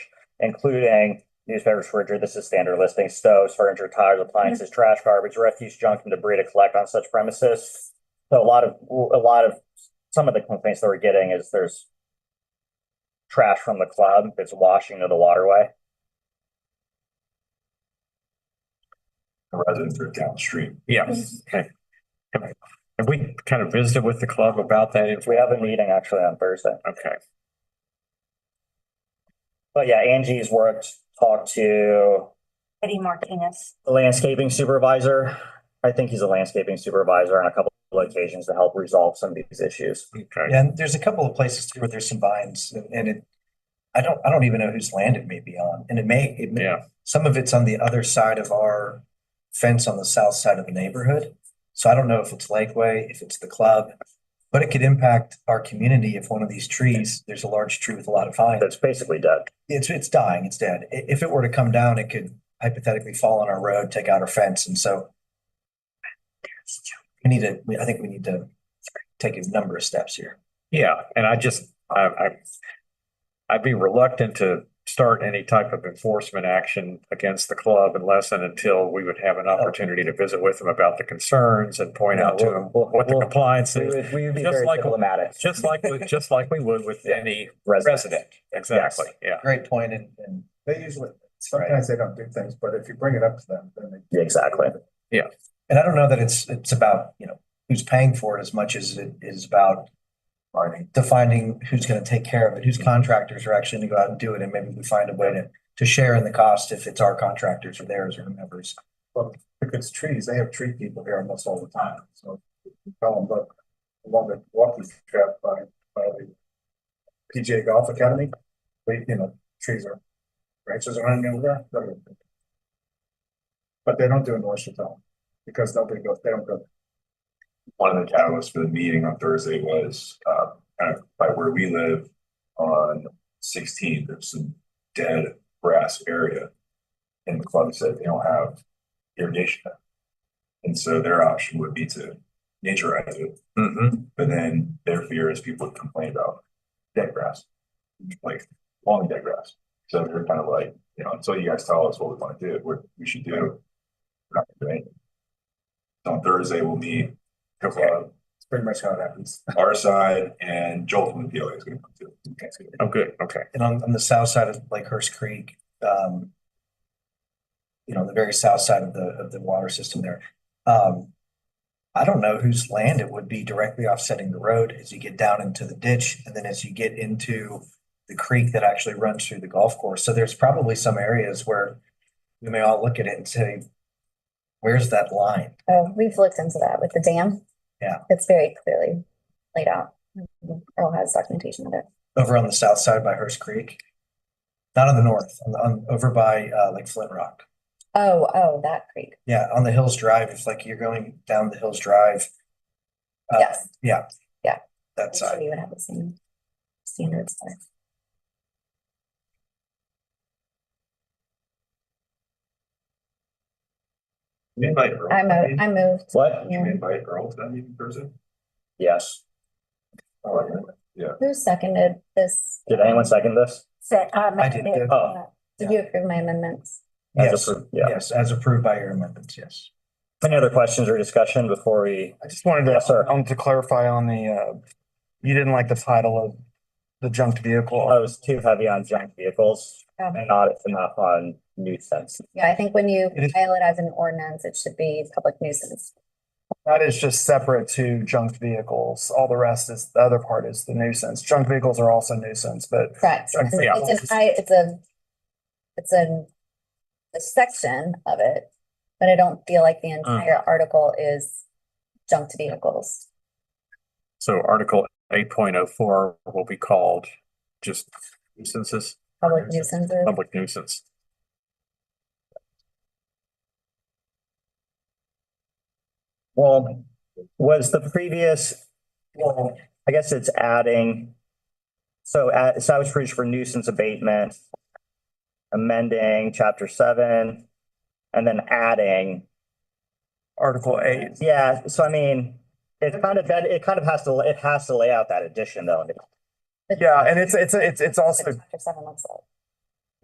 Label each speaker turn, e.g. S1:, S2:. S1: including newspapers, refrigerator, this is standard listing, stoves, furniture, tires, appliances, trash, garbage, refuse, junk, and debris to collect on such premises. So a lot of, a lot of, some of the complaints that we're getting is there's trash from the club that's washing to the waterway.
S2: residents are downstream.
S3: Yes.
S4: Okay. All right. Have we kind of visited with the club about that?
S1: We have a meeting actually on Thursday.
S4: Okay,
S1: But yeah, Angie's worked, talked to
S3: Eddie Martinez.
S1: the landscaping supervisor. I think he's a landscaping supervisor on a couple of occasions to help resolve some of these issues.
S4: okay.
S5: Yeah, and there's a couple of places too where there's some vines and- and it, I don't, I don't even know whose land it may be on. And it may, it may,
S4: Yeah,
S5: some of it's on the other side of our fence on the south side of the neighborhood. So I don't know if it's Lakeway, if it's the club, but it could impact our community if one of these trees, there's a large tree with a lot of vines.
S1: That's basically dead.
S5: It's, it's dying, it's dead. I- if it were to come down, it could hypothetically fall on our road, take out our fence. And so we need to, we- I think we need to take a number of steps here.
S4: yeah. And I just, I, I, I'd be reluctant to start any type of enforcement action against the club unless and until we would have an opportunity to visit with them about the concerns and point out to them what the compliance
S1: We
S4: is.
S1: would, we would be
S4: Just
S1: very
S4: like-
S1: diplomatic.
S4: Just like, with- just like we would with any resident. Exactly, yeah.
S5: Great point and, and
S6: They usually, sometimes they don't do things, but if you bring it up to them, then they.
S1: Yeah, Exactly.
S5: And I don't know that it's, it's about, you know, who's paying for it as much as it is about defining who's gonna take care of it, whose contractors are actually gonna go out and do it, and maybe we find a way to, to share in the cost if it's our contractors or theirs or whomever's.
S6: If it's trees, they have tree people here almost all the time, so tell them, look, along the walking trail by, by the PGA Golf Academy, they, you know, trees are, branches are hanging over there. But they don't do an oyster film, because nobody goes, they don't go,
S2: One of the catalysts for the meeting on Thursday was, uh, kind of by where we live on sixteen, there's some dead grass area. And the club said they don't have irrigation. And so their option would be to naturize it,
S4: Mm-hmm.
S2: but then their fear is people would complain about dead grass. Like long dead grass. So they're kind of like, you know, until you guys tell us what we want to do, what we should do. We're not gonna do anything. So On Thursday, we'll meet, the club,
S6: it's pretty much how it happens.
S2: our side and Joel from the PLA is gonna come too. That's good.
S4: Oh, good, okay.
S5: And on, on the south side of Lakehurst Creek, um, you know, the very south side of the, of the water system there, um, I don't know whose land it would be directly offsetting the road as you get down into the ditch and then as you get into the creek that actually runs through the golf course. So there's probably some areas where we may all look at it and say, where's that line?
S3: Oh, we've looked into that with the dam.
S5: Yeah.
S3: It's very clearly laid out. Earl has documentation of it.
S5: Over on the south side by Hearst Creek? Not on the north, on, on, over by, uh, like Flint Rock.
S3: Oh, oh, that creek.
S5: Yeah, on the Hills Drive, it's like you're going down the Hills Drive. Uh,
S3: Yes. I'm
S5: That
S3: sure
S5: side.
S3: you would have the same standards there.
S2: You invite Earl.
S3: I
S2: I
S3: moved,
S2: mean,
S3: I moved.
S1: What?
S2: You
S3: Yeah.
S2: invite Earl to that meeting Thursday?
S1: Yes.
S2: Oh, okay.
S3: Who seconded this?
S1: Did anyone second this?
S7: Say, uh,
S5: I did, yeah.
S1: Oh.
S3: Did you approve my amendments?
S1: As
S5: Yes,
S1: approved, Yeah.
S5: yes, as approved by your amendments, yes.
S1: Any other questions or discussion before we,
S8: I just wanted
S1: Yes, sir.
S8: to, um, to clarify on the, uh, you didn't like the title of the junked
S1: I
S8: vehicle.
S1: was too heavy on junk vehicles
S3: Um,
S1: and not enough on nuisance.
S3: Yeah, I think when you
S8: It is-
S3: file it as an ordinance, it should be public nuisance.
S8: That is just separate to junked vehicles. All the rest is, the other part is the nuisance. Junk vehicles are also nuisance, but
S3: Correct.
S8: Junk
S3: It's an-
S8: vehicles.
S3: it's an I, it's a, it's a, a section of it, but I don't feel like the entire article is junked vehicles.
S4: So Article eight point oh four will be called just nuisances,
S3: Public nuisances.
S4: public nuisance.
S1: Well, was the previous, well, I guess it's adding. So at, so I was approved for nuisance abatement. Amending chapter seven and then adding,
S8: Article eight,
S1: yeah, so I mean. It's kind of, that it kind of has to, it has to lay out that addition though.
S3: but
S8: yeah, and it's, it's, it's, it's also
S3: what Chapter seven looks like.